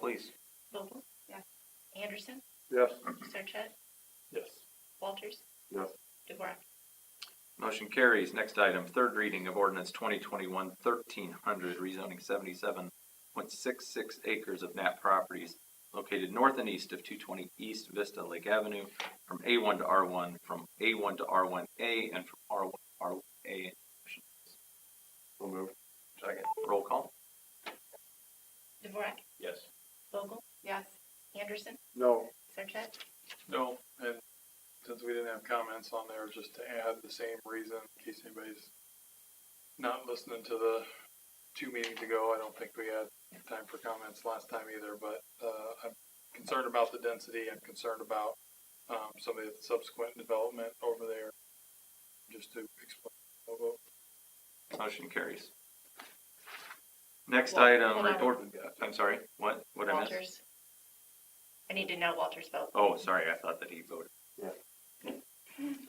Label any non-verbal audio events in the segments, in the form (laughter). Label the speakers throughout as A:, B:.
A: please.
B: Vogel? Yes. Anderson?
C: Yes.
B: Sarchet?
C: Yes.
B: Walters?
C: Yes.
B: Dvorak?
A: Motion carries. Next item, third reading of ordinance 2021 1300, rezoning 77.66 acres of NAP properties located north and east of 220 East Vista Lake Avenue from A1 to R1, from A1 to R1A, and from R1 to R1A.
C: So moved.
A: Second. Roll call.
B: Dvorak?
C: Yes.
B: Vogel? Yes. Anderson?
C: No.
B: Sarchet?
D: No, and since we didn't have comments on there, just to add the same reason in case anybody's not listening to the two meetings ago. I don't think we had time for comments last time either, but uh, I'm concerned about the density. I'm concerned about um, some of the subsequent development over there. Just to explain. I'll vote.
A: Motion carries. Next
B: Wal-
A: item,
B: hold on.
A: report, I'm sorry, what, what I missed?
B: Walters? I need to know Walters' vote.
A: Oh, sorry, I thought that he voted.
C: Yeah.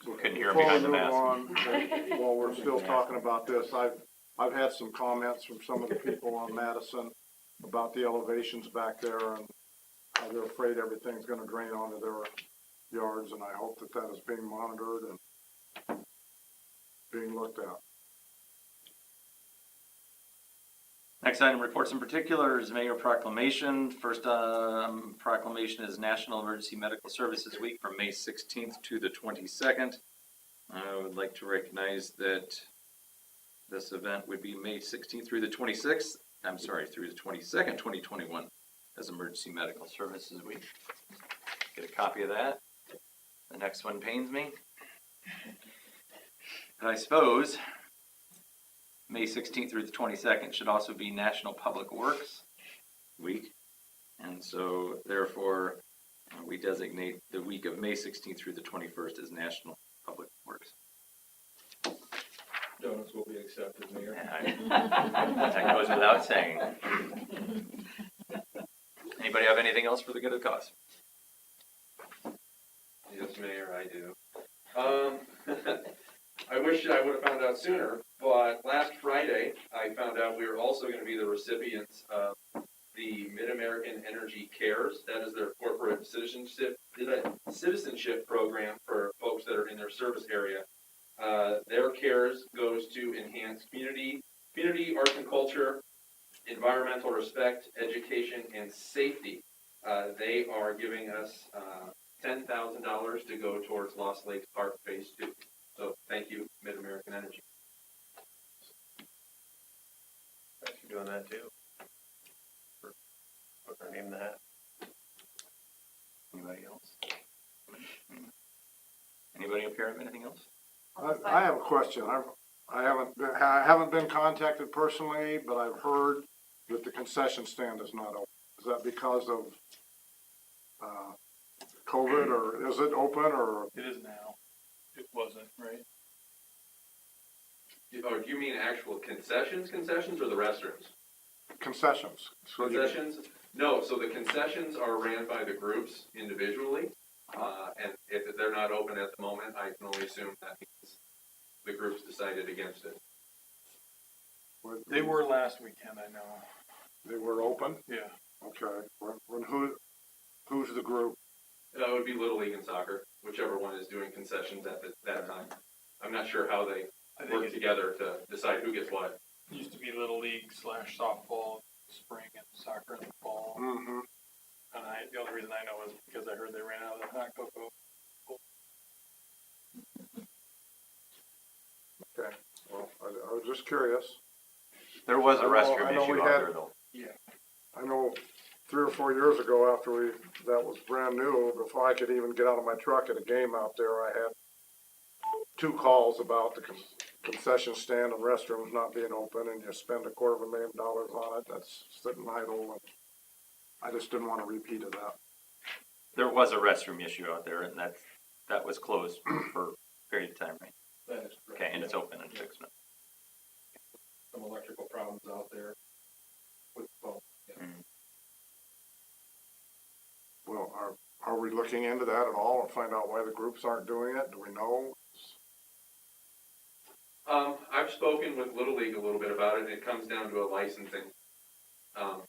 A: We couldn't hear him behind the mask.
C: Before we move on, While we're still talking about this, I've, I've had some comments from some of the people on Madison about the elevations back there and how they're afraid everything's gonna drain onto their yards, and I hope that that is being monitored and being looked at.
A: Next item, reports in particular, is mayor proclamation. First um, proclamation is National Emergency Medical Services Week from May 16th to the 22nd. I would like to recognize that this event would be May 16th through the 26th, I'm sorry, through the 22nd, 2021, as Emergency Medical Services Week. Get a copy of that. The next one pains me. And I suppose May 16th through the 22nd should also be National Public Works Week. And so therefore, uh, we designate the week of May 16th through the 21st as National Public Works.
E: Donuts will be accepted, Mayor.
A: (laughs) That goes without saying. Anybody have anything else for the good of the cause?
E: Yes, Mayor, I do. Um, (laughs) I wish I would have found out sooner, but last Friday, I found out we were also gonna be the recipients of the Mid-American Energy Cares. That is their corporate citizenship, citizenship program for folks that are in their service area. Uh, their cares goes to enhance community, community arts and culture, environmental respect, education, and safety. Uh, they are giving us, uh, ten thousand dollars to go towards Lost Lake Park Phase Two. So thank you, Mid American Energy.
F: Thanks for doing that too. For- What's her name that?
A: Anybody else? Anybody up here have anything else?
C: I, I have a question. I've, I haven't, been- I haven't been contacted personally, but I've heard that the concession stand is not open. Is that because of, uh, COVID or is it open or,
D: It is now. It wasn't, right?
E: You- Oh, do you mean actual concessions, concessions or the restrooms?
C: concessions. So you-
E: Concessions? No, so the concessions are ran by the groups individually. Uh, and if they're not open at the moment, I can only assume that means the groups decided against it.
D: They were last weekend, I know.
C: They were open?
D: Yeah.
C: Okay. When, when who, who's the group?
E: Uh, it would be Little League and soccer, whichever one is doing concessions at the, that time. I'm not sure how they
D: I think
E: work
D: it
E: together to decide who gets what.
D: used to be Little League slash softball, spring and soccer in the fall.
C: Mm-hmm.
D: And I, the only reason I know is because I heard they ran out of the hot cocoa.
C: Okay. Well, I, I was just curious.
A: There was a
C: I know-
A: restroom
C: I know we
A: issue out
C: had-
A: there though.
C: I know three or four years ago after we, that was brand new, before I could even get out of my truck at a game out there, I had two calls about the con- concession stand and restrooms not being open and you spend a quarter of a million dollars on it, that's sitting idle. and I just didn't want a repeat of that.
A: There was a restroom issue out there and that's, that was closed for a period of time, right?
F: That is correct.
A: Okay, and it's open in six months.
F: Some electrical problems out there with, well,
C: Well, are, are we looking into that at all and find out why the groups aren't doing it? Do we know?
E: Um, uh, I've spoken with Little League a little bit about it, and it comes down to a licensing. Um,